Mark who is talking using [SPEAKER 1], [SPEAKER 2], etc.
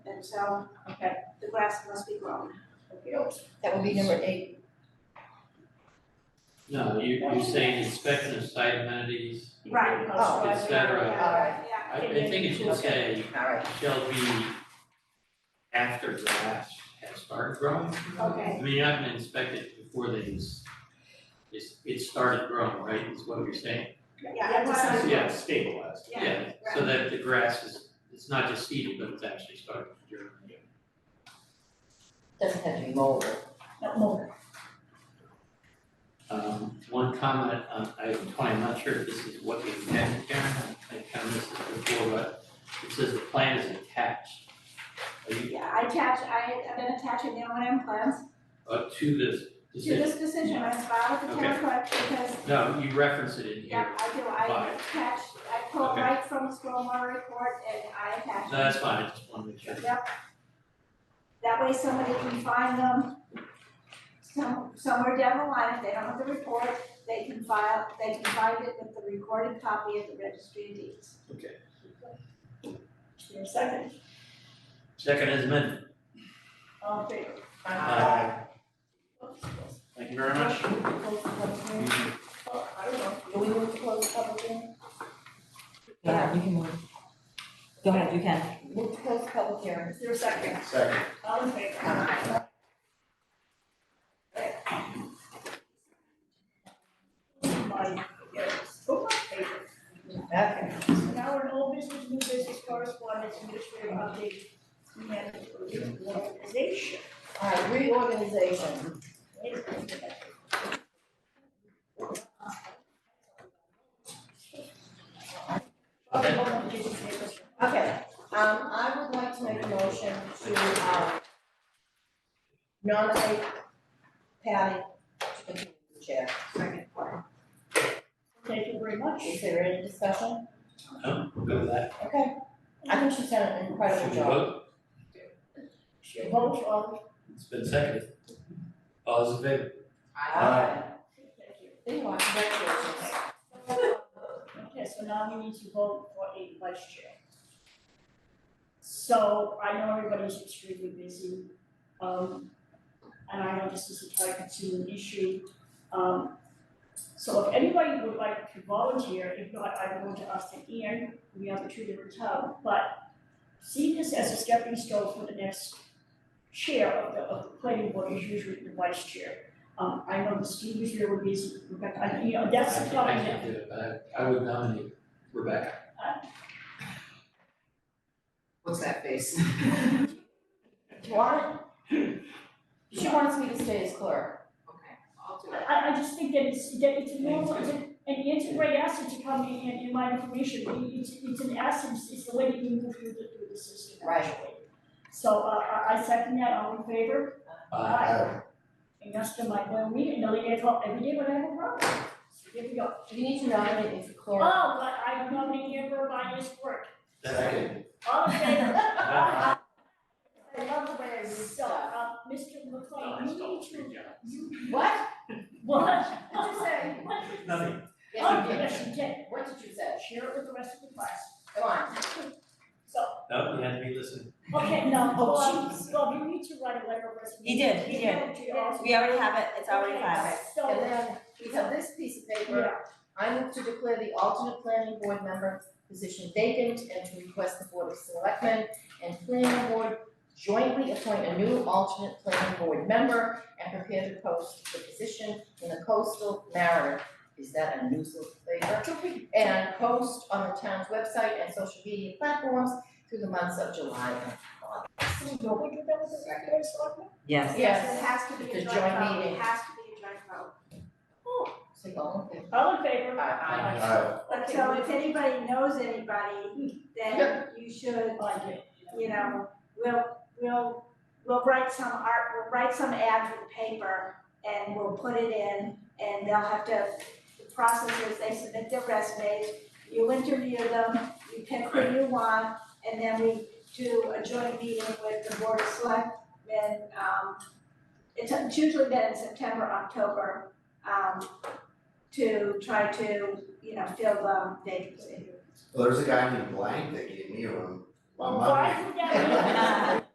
[SPEAKER 1] so, okay, the grass must be grown. Oh,
[SPEAKER 2] That would be number eight.
[SPEAKER 3] No, you, you're saying inspection of site amenities,
[SPEAKER 1] Right.
[SPEAKER 2] Oh.
[SPEAKER 3] Et cetera.
[SPEAKER 1] Yeah,
[SPEAKER 3] I,
[SPEAKER 1] yeah.
[SPEAKER 3] I think it should say,
[SPEAKER 2] All right,
[SPEAKER 3] shall be after grass has started growing.
[SPEAKER 1] Okay,
[SPEAKER 3] I mean, you haven't inspected before they, s- it's, it started growing, right, is what you're saying?
[SPEAKER 1] yeah, I just-
[SPEAKER 3] Yeah.
[SPEAKER 4] stabilized.
[SPEAKER 1] Yeah,
[SPEAKER 3] so that the grass is, it's not just seeded, but it's actually started to germinate.
[SPEAKER 2] doesn't have to be molded.
[SPEAKER 5] Not more.
[SPEAKER 3] Um, one comment on item twenty, I'm not sure if this is what you meant, Karen, I think I missed it before, but it says the plan is attached. Are you,
[SPEAKER 1] yeah, I attach, I, I've been attaching the O and M plans
[SPEAKER 3] uh, to this
[SPEAKER 1] to
[SPEAKER 3] decision?
[SPEAKER 1] this decision, I filed with the town clerk because,
[SPEAKER 3] No, you reference it in
[SPEAKER 1] yeah,
[SPEAKER 3] here.
[SPEAKER 1] I do, I
[SPEAKER 3] Fine.
[SPEAKER 1] attach, I pull
[SPEAKER 3] Okay.
[SPEAKER 1] right from the stormwater report and I attach.
[SPEAKER 3] No, that's fine, I just wanted to make sure.
[SPEAKER 1] That way somebody can find them some, somewhere down the line, if they don't have the report, they can file, they can find it with the recorded copy at the registry of deeds.
[SPEAKER 5] Your second,
[SPEAKER 3] Second is amended.
[SPEAKER 5] all in favor?
[SPEAKER 2] Uh,
[SPEAKER 3] Aye.
[SPEAKER 5] Oops,
[SPEAKER 4] Thank you very much.
[SPEAKER 5] close the public hearing. Uh, I don't know, do we want to close the public hearing?
[SPEAKER 2] Yeah,
[SPEAKER 6] you can move. Go ahead, you can.
[SPEAKER 2] Move to close public hearing.
[SPEAKER 5] Is there a second?
[SPEAKER 4] Second.
[SPEAKER 5] All in favor? Somebody, yes, go on, favor.
[SPEAKER 2] Okay.
[SPEAKER 5] Now we're in all business, new business, correspondence, administrative update, management reorganization.
[SPEAKER 2] All right, reorganization. Okay, um, I would like to make a motion to, um, nominate Patty to continue the chair.
[SPEAKER 5] Thank you very much.
[SPEAKER 2] Is there any discussion?
[SPEAKER 3] No, we'll go with that.
[SPEAKER 2] Okay, I think she's done an
[SPEAKER 3] Should
[SPEAKER 2] incredible
[SPEAKER 3] we
[SPEAKER 2] job.
[SPEAKER 3] vote?
[SPEAKER 5] Your vote on,
[SPEAKER 3] It's been seconded. All those in favor?
[SPEAKER 2] Aye.
[SPEAKER 5] thank you.
[SPEAKER 2] There you are, congratulations.
[SPEAKER 5] Okay, so now we need to vote for a vice chair. So I know everybody's extremely busy, um, and I know this is a time consuming issue. Um, so if anybody would like to volunteer, if not, I'm going to ask that Ian, we have a two different town, but see this as a stepping stone for the next chair of the, of the planning board is usually the vice chair. Um, I know the Steve is really busy, Rebecca, I, you know, that's
[SPEAKER 3] I
[SPEAKER 5] the
[SPEAKER 3] can't, I
[SPEAKER 5] problem that-
[SPEAKER 3] can't do it, but Uh, I, I would nominate Rebecca.
[SPEAKER 6] What's that face?
[SPEAKER 2] Do you want it? She wants me to stay as clerk.
[SPEAKER 6] Okay, I'll do it.
[SPEAKER 5] I, I just think that it's, that it's a normal, it's a- and it's a great asset to come in and, in my information, I mean, it's, it's an asset, it's- it's the way that you move through the, through the system,
[SPEAKER 2] Right.
[SPEAKER 5] actually. So, uh, I, I second that, all in favor?
[SPEAKER 3] Aye.
[SPEAKER 5] And that's the, my, when we didn't know, they had, every day when I have a problem, so here we go.
[SPEAKER 2] You need to nominate me for
[SPEAKER 5] Oh,
[SPEAKER 2] clerk.
[SPEAKER 5] but I nominate you for my this work,
[SPEAKER 3] Second.
[SPEAKER 5] all in favor?
[SPEAKER 3] Aye.
[SPEAKER 5] I love the way I so, uh, Mr. McLean, you need to, you,
[SPEAKER 2] What?
[SPEAKER 5] what?
[SPEAKER 2] What'd you say?
[SPEAKER 5] What did you
[SPEAKER 3] Nothing.
[SPEAKER 5] say?
[SPEAKER 2] Yes,
[SPEAKER 5] Oh,
[SPEAKER 2] you did.
[SPEAKER 5] yes, you did,
[SPEAKER 2] What did you say?
[SPEAKER 5] share it with the rest of the class.
[SPEAKER 2] Come on.
[SPEAKER 5] So,
[SPEAKER 3] No, you had to be listening.
[SPEAKER 5] okay, no,
[SPEAKER 2] Oh,
[SPEAKER 5] Bob,
[SPEAKER 2] jeez.
[SPEAKER 5] Bob, you need to write a letter of resignation.
[SPEAKER 6] He did, he
[SPEAKER 5] You know, to your office.
[SPEAKER 6] We already have it, it's already
[SPEAKER 5] Okay,
[SPEAKER 6] filed.
[SPEAKER 2] And
[SPEAKER 5] So,
[SPEAKER 2] then we have this piece of paper.
[SPEAKER 5] yeah,
[SPEAKER 2] I move to declare the alternate planning board member position vacant and to request the board of selectmen and planning board jointly appoint a new alternate planning board member and prepare to post the position in the coastal mariner. Is that a newspaper? And post on the town's website and social media platforms through the months of July and August.
[SPEAKER 5] so you know, we do that with the board of selectmen?
[SPEAKER 6] Yes.
[SPEAKER 1] Yes, it has to be a
[SPEAKER 2] The
[SPEAKER 1] joint
[SPEAKER 2] joint
[SPEAKER 1] vote, it
[SPEAKER 2] meeting.
[SPEAKER 1] has to be a joint vote.
[SPEAKER 2] So all in favor?
[SPEAKER 5] Oh, All in favor?
[SPEAKER 2] Aye.
[SPEAKER 5] Okay,
[SPEAKER 1] So
[SPEAKER 5] we-
[SPEAKER 1] if anybody knows anybody, then
[SPEAKER 2] Yep.
[SPEAKER 1] you should,
[SPEAKER 5] I did,
[SPEAKER 1] you know, we'll, we'll, we'll write some art, we'll write some ad for the paper and we'll put it in and they'll have to, the process is they submit their resumes, you interview them, you pick who you want, and then we do a joint meeting with the board of selectmen, um, it's it's usually been in September, October, um, to try to, you know, fill the vacancy.
[SPEAKER 7] Well, there's a guy named Blank that gave me a room. My
[SPEAKER 5] Why
[SPEAKER 7] mother,
[SPEAKER 5] would that